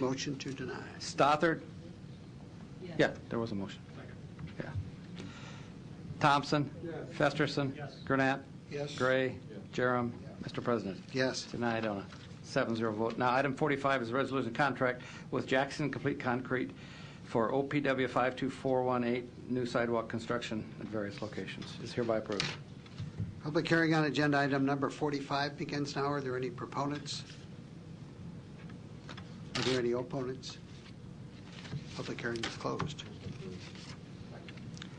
Motion to deny. Stothard? Yeah, there was a motion. Yeah. Thompson? Festerson? Gurnett? Yes. Gray? Jerem? Mr. President? Yes. Denied on a seven zero vote. Now, item 45 is a resolution contract with Jackson Complete Concrete for OPW 52418, new sidewalk construction at various locations. Is hereby approved. Public hearing on agenda item number 45 begins now. Are there any proponents? Are there any opponents? Public hearing is closed.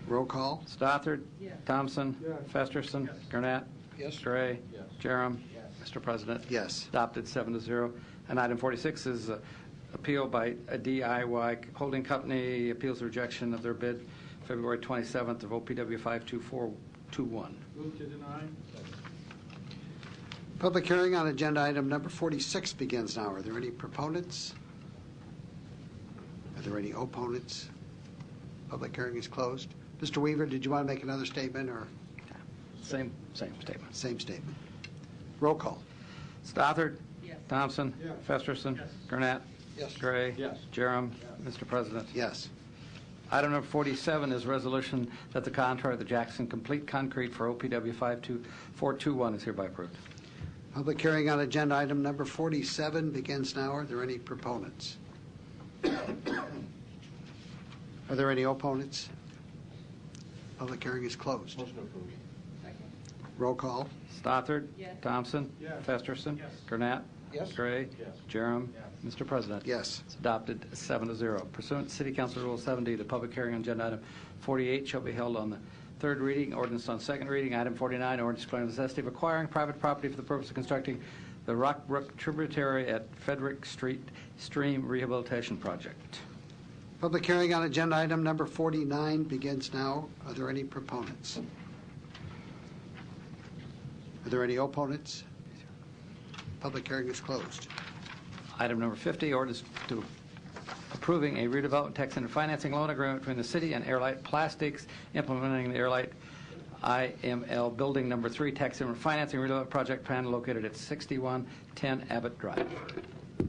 Roll call? Stothard? Thompson? Festerson? Gurnett? Yes. Gray? Jerem? Mr. President? Yes. Adopted seven to zero. And item 46 is uh, appeal by a DIY holding company appeals rejection of their bid February 27th of OPW 52421. Move to deny. Public hearing on agenda item number 46 begins now. Are there any proponents? Are there any opponents? Public hearing is closed. Mr. Weaver, did you want to make another statement or Same, same statement. same statement? Roll call? Stothard? Yes. Thompson? Yes. Festerson? Gurnett? Yes. Gray? Yes. Jerem? Mr. President? Yes. Item number 47 is resolution that the contract of the Jackson Complete Concrete for OPW 52421 is hereby approved. Public hearing on agenda item number 47 begins now. Are there any proponents? Are there any opponents? Public hearing is closed. Motion approved. Roll call. Stothard? Yes. Thompson? Yes. Festerson? Yes. Gurnett? Yes. Gray? Yes. Jerem? Mr. President? Yes. It's adopted seven to zero. Pursuant to City Council Rule 70, the public hearing on agenda item 48 shall be held on the third reading, ordinance on second reading. Item 49, ordinance declaring the necessity of acquiring private property for the purpose of constructing the Rock Brook tributary at Frederick Street Stream Rehabilitation Project. Public hearing on agenda item number 49 begins now. Are there any proponents? Are there any opponents? Public hearing is closed. Item number 50, ordinance to approving a redevelopment tax and financing loan agreement between the city and Airlight Plastics, implementing the Airlight IML Building Number 3 Tax and Financing Redevelopment Project Plan located at 6110 Abbott Drive.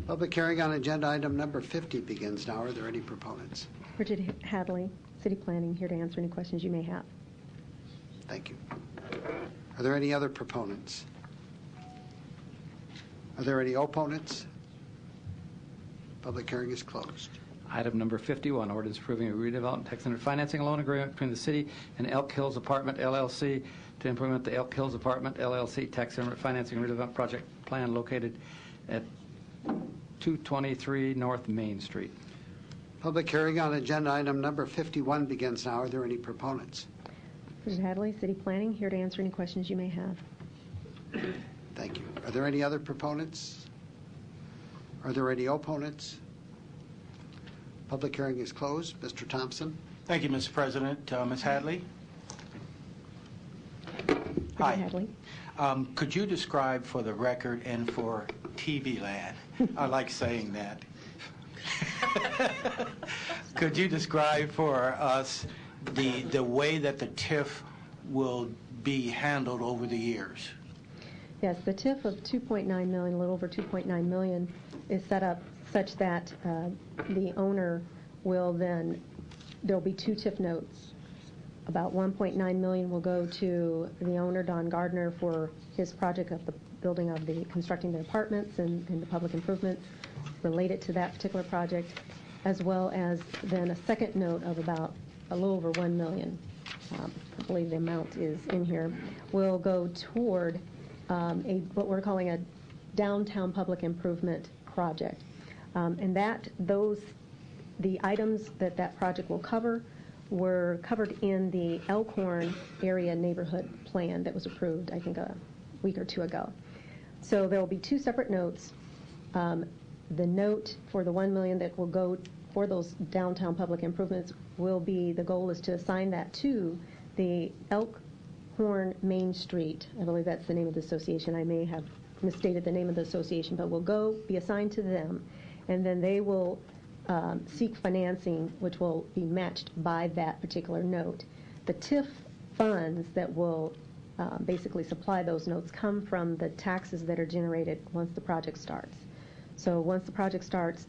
Public hearing on agenda item number 50 begins now. Are there any proponents? Bridget Hadley, City Planning, here to answer any questions you may have. Thank you. Are there any other proponents? Are there any opponents? Public hearing is closed. Item number 51, ordinance approving a redevelopment tax and financing loan agreement between the city and Elk Hills Apartment LLC to implement the Elk Hills Apartment LLC Tax and Financing Redevelopment Project Plan located at 223 North Main Street. Public hearing on agenda item number 51 begins now. Are there any proponents? Bridget Hadley, City Planning, here to answer any questions you may have. Thank you. Are there any other proponents? Are there any opponents? Public hearing is closed. Mr. Thompson? Thank you, Mr. President. Uh, Ms. Hadley? Hi. Bridget Hadley. Um, Could you describe for the record and for TV land, I like saying that, could you describe for us the, the way that the TIF will be handled over the years? Yes, the TIF of 2.9 million, a little over 2.9 million, is set up such that uh, the owner will then, there'll be two TIF notes. About 1.9 million will go to the owner, Don Gardner, for his project of the building of the, constructing the apartments and and the public improvements related to that particular project, as well as then a second note of about a little over 1 million um, I believe the amount is in here, will go toward um, a, what we're calling a downtown public improvement project. Um, And that, those, the items that that project will cover were covered in the Elkhorn Area Neighborhood Plan that was approved, I think, a week or two ago. So there will be two separate notes. Um, The note for the 1 million that will go for those downtown public improvements will be, the goal is to assign that to the Elkhorn Main Street, I believe that's the name of the association, I may have misstated the name of the association, but will go, be assigned to them, and then they will um, seek financing, which will be matched by that particular note. The TIF funds that will uh, basically supply those notes come from the taxes that are generated once the project starts. So once the project starts,